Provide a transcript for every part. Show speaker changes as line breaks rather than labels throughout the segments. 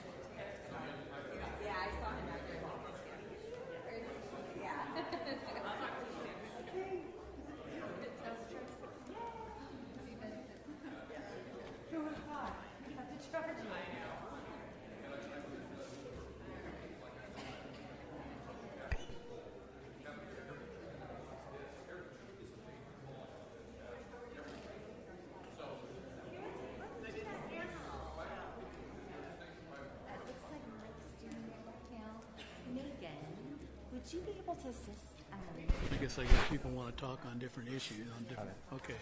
Would you be able to assist? Um,
I guess I guess people want to talk on different issues, on different, okay.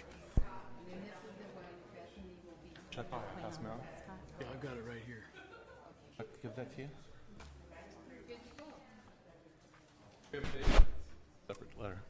Chuck, pass me on.
Yeah, I've got it right here.
Chuck, give that to you. Separate letter.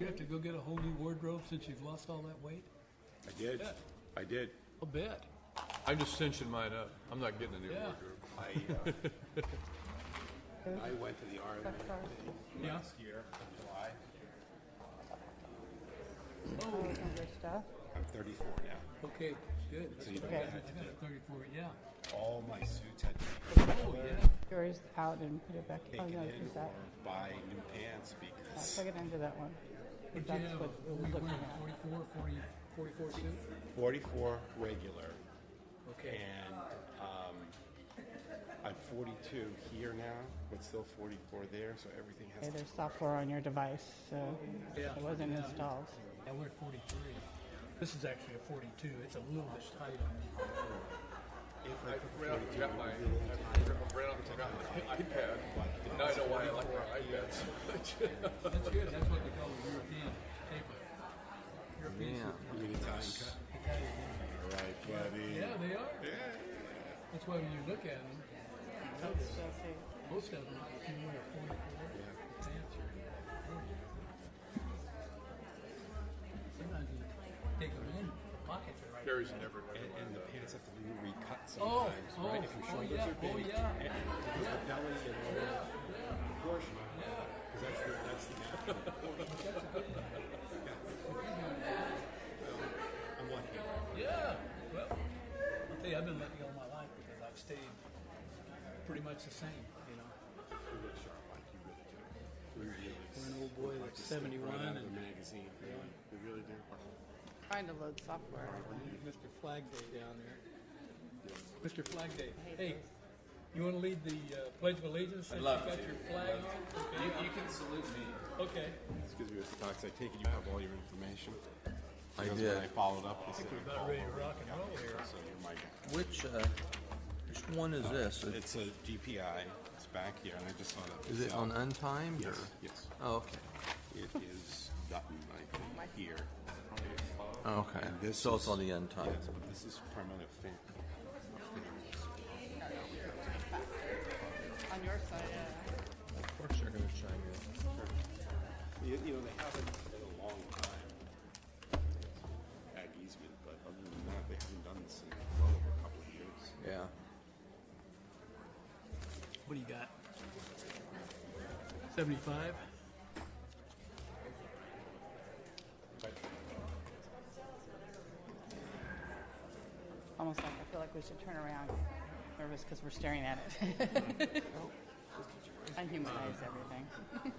You have to go get a whole new wardrobe since you've lost all that weight?
I did. I did.
I'll bet.
I'm just cinching mine up. I'm not getting a new
Yeah.
wardrobe.
I, uh, I went to the Army
Yeah.
last year in July. I'm 34 now.
Okay, good. That's
you
what
don't
I got. I got a Thirty-four, yeah.
All my suits had to be
Oh, yeah.
Yours out and put it back. Oh,
taken
no,
in
it's
or
that.
buy new pants because
Plug it into that one.
But you
That's
have,
what
a-
we're
we
looking
wear
at.
44, 40 44 suit?
44 regular
Okay.
and um, I'm 42 here now, but still 44 there, so everything has
Okay,
to
there's software on your device, so
Yeah.
it wasn't
Yeah.
installed.
Now we're at forty-three. This is actually a forty-two. It's a little bit tight on me.
I ran out and got my, I ran out and got my iPad. Now I know why I like my iPad so much.
That's good. That's what they call a European paper. European suit.
be the time cut. All right, buddy.
Yeah, they are. That's why when you look at them, most of them, if you wear a forty-four, pants are Sometimes you take them in, the pockets are right.
Carries it everywhere.
And, and the pants have to be recut
Oh,
sometimes,
oh,
right? If your
oh,
shoulders
yeah,
are
oh,
big,
yeah.
and- because the belly and all that proportion, because that's the that's the natural proportion. Yeah. Um, I'm lucky.
Yeah, well, I'll tell you, I've been lucky all my life because I've stayed pretty much the same, you know.
We look sharp, like you really do. We really
We're an old boy that's seventy-one
out of
and
the magazine. really. We really do.
Trying to load software.
uh, Mr. Flag Day down there. Mr. Flag Day, hey, you wanna lead the uh, Pledge of Allegiance since you
love
got
to.
your flag on?
You can salute me.
Okay,
Excuse me, Mr. Cox. I take it you have all your information.
I
Because
did.
When I followed up, they said
we're
you
about
called
ready to
over.
rock and
Yeah,
roll here.
So you're my guy.
Which, uh, which one is this? Is-
It's a DPI. It's back here, and I just saw that.
Is it
Yeah.
on untimed or?
Yes. Yes.
Oh, okay.
It is Dutton, I think, here.
Oh, Okay.
And this
so
is-
it's on the untimed.
Yes, but this is primarily a fan.
On your side, yeah.
Of course they're going to chime in.
You, you know, they haven't in a long time. Ag easement, but other than that, they haven't done this in well over a couple of years.
Yeah.
what do you got? Seventy-five?
Almost like, I feel like we should turn around. Nervous because we're staring at it. Unhumanized everything.